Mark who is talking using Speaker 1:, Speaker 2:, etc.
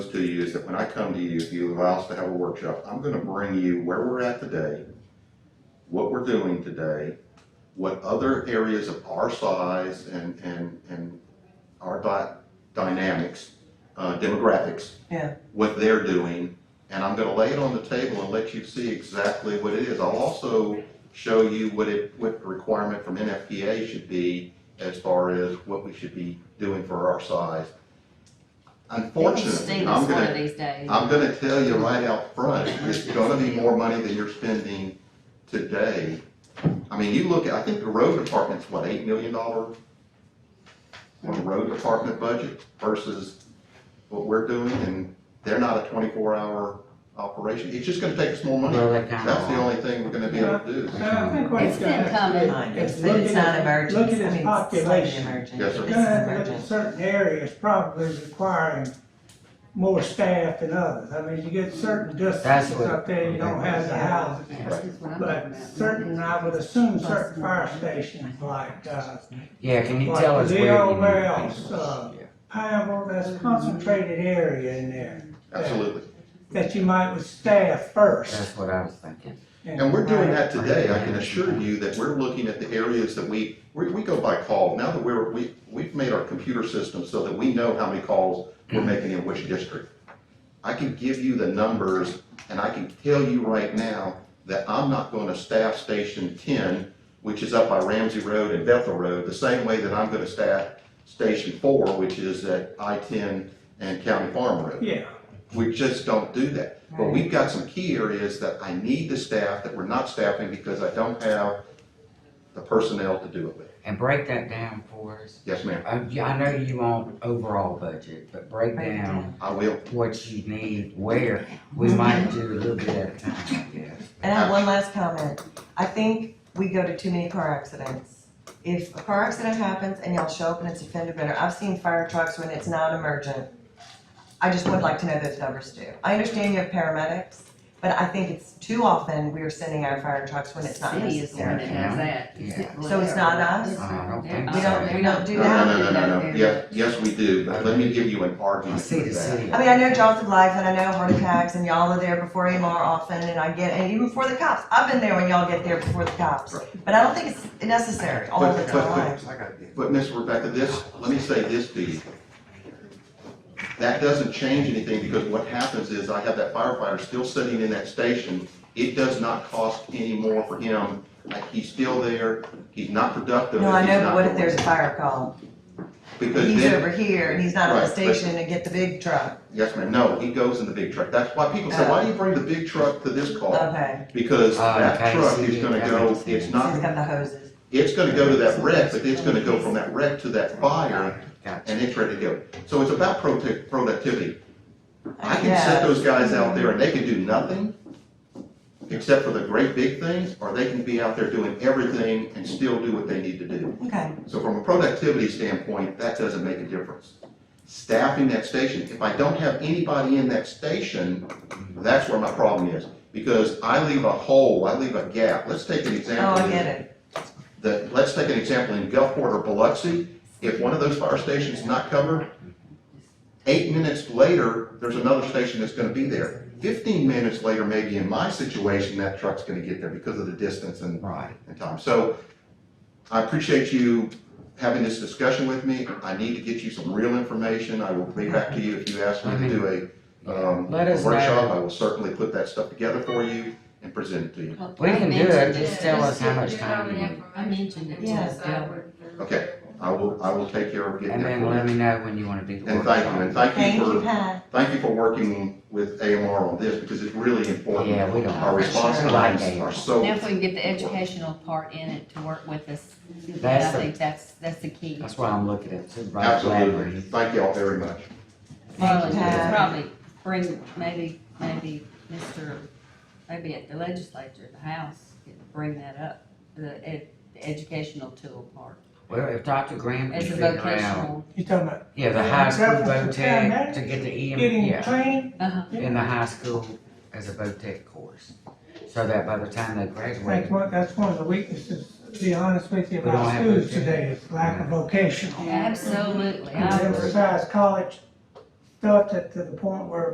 Speaker 1: to you is that when I come to you, if you allow us to have a workshop, I'm gonna bring you where we're at today, what we're doing today, what other areas of our size and, and, and our di- dynamics, uh, demographics.
Speaker 2: Yeah.
Speaker 1: What they're doing, and I'm gonna lay it on the table and let you see exactly what it is. I'll also show you what it, what the requirement from NFPA should be as far as what we should be doing for our size. Unfortunately, I'm
Speaker 3: State us one of
Speaker 1: gonna,
Speaker 3: these days.
Speaker 1: I'm gonna tell you right out front, it's gonna be more money than you're spending today. I mean, you look, at I think the road department's what, eight million dollar? On the road department budget versus what we're doing, and they're not a twenty-four hour operation, it's just gonna take us more money.
Speaker 4: Well, uh, that kind
Speaker 1: That's the
Speaker 4: of,
Speaker 1: only thing we're gonna be able to do.
Speaker 5: I think what
Speaker 3: It's
Speaker 5: we're gonna
Speaker 3: been
Speaker 5: have to do
Speaker 2: I know,
Speaker 5: is
Speaker 2: but
Speaker 5: look
Speaker 2: it's
Speaker 5: at
Speaker 2: not
Speaker 5: his-
Speaker 2: emergent, I
Speaker 5: Look
Speaker 2: mean,
Speaker 5: at
Speaker 2: it's
Speaker 5: his
Speaker 2: slightly
Speaker 5: population.
Speaker 2: emergent,
Speaker 1: Yes, sir.
Speaker 2: but this
Speaker 5: We're
Speaker 2: is
Speaker 5: gonna have to look at
Speaker 2: emergent.
Speaker 5: certain areas probably requiring more staff than others. I mean, you get certain districts
Speaker 4: what-
Speaker 5: up there, you don't have the housing. But certain, I would assume certain fire stations like, uh,
Speaker 4: yeah, can you
Speaker 5: Like
Speaker 4: tell us
Speaker 5: the
Speaker 4: where?
Speaker 5: old
Speaker 4: you-
Speaker 5: warehouse, uh, Pineville, that's concentrated area in there,
Speaker 1: Absolutely.
Speaker 5: that you might with staff first.
Speaker 4: That's what I was thinking.
Speaker 1: And we're doing that today, I can assure you that we're looking at the areas that we, we, we go by call. Now that we're, we, we've made our computer system so that we know how many calls we're making in which district. I can give you the numbers, and I can tell you right now that I'm not gonna staff Station ten, which is up by Ramsey Road and Bethel Road, the same way that I'm gonna staff Station four, which is at I ten and County Farm Road.
Speaker 5: Yeah,
Speaker 1: We just don't do that. But we've got some key areas that I need to staff that we're not staffing because I don't have the personnel to do it with.
Speaker 4: And break that down for us.
Speaker 1: Yes, ma'am,
Speaker 4: Uh, yeah, I know you want overall budget, but break
Speaker 2: Break it
Speaker 4: down
Speaker 1: I will.
Speaker 4: what you need, where. We might do a little bit at a time, I guess.
Speaker 2: And I have one last comment. I think we go to too many car accidents. If a car accident happens and y'all show up and it's a fender bender, I've seen fire trucks when it's not emergent. I just would like to know those numbers too. I understand you have paramedics, but I think it's too often we are sending our fire trucks when it's not
Speaker 3: City is the one
Speaker 2: necessary.
Speaker 3: that does that.
Speaker 4: Yeah.
Speaker 2: So it's not us?
Speaker 4: I don't
Speaker 3: Yeah.
Speaker 4: think
Speaker 2: We don't,
Speaker 4: so.
Speaker 2: we don't do
Speaker 1: No,
Speaker 2: that.
Speaker 1: no, no, no, no, no. Yes, yes, we do, but let me give you an
Speaker 4: I
Speaker 1: argument
Speaker 4: see
Speaker 1: with
Speaker 4: the
Speaker 1: that.
Speaker 4: city.
Speaker 2: I mean, I know jaws of life and I know heart attacks and y'all are there before AMR often and I get, and even before the cops. I've been there when y'all get there before the cops. But I don't think it's necessary all
Speaker 1: But-
Speaker 2: the
Speaker 1: but- but-
Speaker 2: time.
Speaker 1: But Miss Rebecca, this, let me say this to you. That doesn't change anything because what happens is I have that firefighter still sitting in that station. It does not cost any more for him. Like, he's still there. He's not productive.
Speaker 2: No, I
Speaker 1: he's
Speaker 2: know,
Speaker 1: not
Speaker 2: but what if
Speaker 1: doing-
Speaker 2: there's a fire call?
Speaker 1: Because
Speaker 2: He's
Speaker 1: then-
Speaker 2: over here and he's not on the
Speaker 1: Right, but-
Speaker 2: station to get the big truck.
Speaker 1: Yes, ma'am, no, he goes in the big truck, that's why people say, why do you bring the big truck to this call?
Speaker 2: Okay,
Speaker 1: Because
Speaker 4: Oh,
Speaker 1: that
Speaker 4: okay,
Speaker 1: truck
Speaker 4: see,
Speaker 1: is gonna
Speaker 4: that
Speaker 1: go,
Speaker 4: makes
Speaker 1: it's
Speaker 4: sense.
Speaker 2: so he's
Speaker 1: not,
Speaker 2: got the hoses.
Speaker 1: it's gonna go to that wreck, but it's gonna go from that wreck to that fire,
Speaker 4: Gotcha.
Speaker 1: and it's ready to go. So it's about prote- productivity, I can
Speaker 2: Yeah.
Speaker 1: set those guys out there and they can do nothing, except for the great big things, or they can be out there doing everything and still do what they need to do.
Speaker 2: Okay,
Speaker 1: So from a productivity standpoint, that doesn't make a difference. Staffing that station, if I don't have anybody in that station, that's where my problem is. Because I leave a hole, I leave a gap. Let's take an
Speaker 2: oh,
Speaker 1: example.
Speaker 2: I get it.
Speaker 1: The- let's take an example in Gulfport or Biloxi. If one of those fire stations is not covered, eight minutes later, there's another station that's gonna be there. Fifteen minutes later, maybe in my situation, that truck's gonna get there because of the distance and
Speaker 4: Right.
Speaker 1: and time. So I appreciate you having this discussion with me. I need to get you some real information. I will be back to you if you ask me to do a, um,
Speaker 4: Mm-hmm. Let us
Speaker 1: a workshop.
Speaker 4: know.
Speaker 1: I will certainly put that stuff together for you and present it to you.
Speaker 4: We can do it, just tell us how much
Speaker 6: Yeah,
Speaker 4: time we
Speaker 6: just
Speaker 4: need.
Speaker 6: give me all the information
Speaker 3: I mentioned it to
Speaker 6: so
Speaker 3: us, yeah.
Speaker 6: I would-
Speaker 1: Okay, I will, I will take care of getting
Speaker 4: And
Speaker 1: that
Speaker 4: then
Speaker 1: for
Speaker 4: let
Speaker 1: you.
Speaker 4: me know when you wanna do the
Speaker 1: And thank you, and
Speaker 4: workshop.
Speaker 1: thank
Speaker 2: Thank you,
Speaker 1: you for,
Speaker 2: Pat.
Speaker 1: thank you for working with AMR on this because it's really important.
Speaker 4: Yeah, we don't.
Speaker 1: Our response
Speaker 4: Sure.
Speaker 1: times are
Speaker 3: Now,
Speaker 1: so,
Speaker 3: if we can get the educational part in it to work with us, I
Speaker 4: That's the-
Speaker 3: think that's, that's the key.
Speaker 4: That's why I'm looking at Supervisor
Speaker 1: absolutely.
Speaker 4: Bradley.
Speaker 1: Thank y'all very much.
Speaker 3: Probably,
Speaker 2: Pat.
Speaker 3: probably bring, maybe, maybe Mr., maybe at the legislature, the House, could bring that up, the ed, the educational tool part.
Speaker 4: Well, if Dr. Graham can
Speaker 3: As a
Speaker 4: figure out,
Speaker 3: vocational,
Speaker 5: you talking about
Speaker 4: yeah, the high school
Speaker 5: Reference to
Speaker 4: VOTEC
Speaker 5: paramedics,
Speaker 4: to get the EM,
Speaker 5: getting
Speaker 4: yeah,
Speaker 5: trained?
Speaker 3: uh-huh,
Speaker 4: in the high school as a VOTEC course. So that by the time they
Speaker 5: I think
Speaker 4: graduate,
Speaker 5: one, that's one of the weaknesses, to be honest with you,
Speaker 4: We don't
Speaker 5: about
Speaker 4: have
Speaker 5: schools
Speaker 4: vocation.
Speaker 5: today, is lack of vocational.
Speaker 3: absolutely, I
Speaker 5: They
Speaker 3: agree.
Speaker 5: emphasize college stuff that to the point where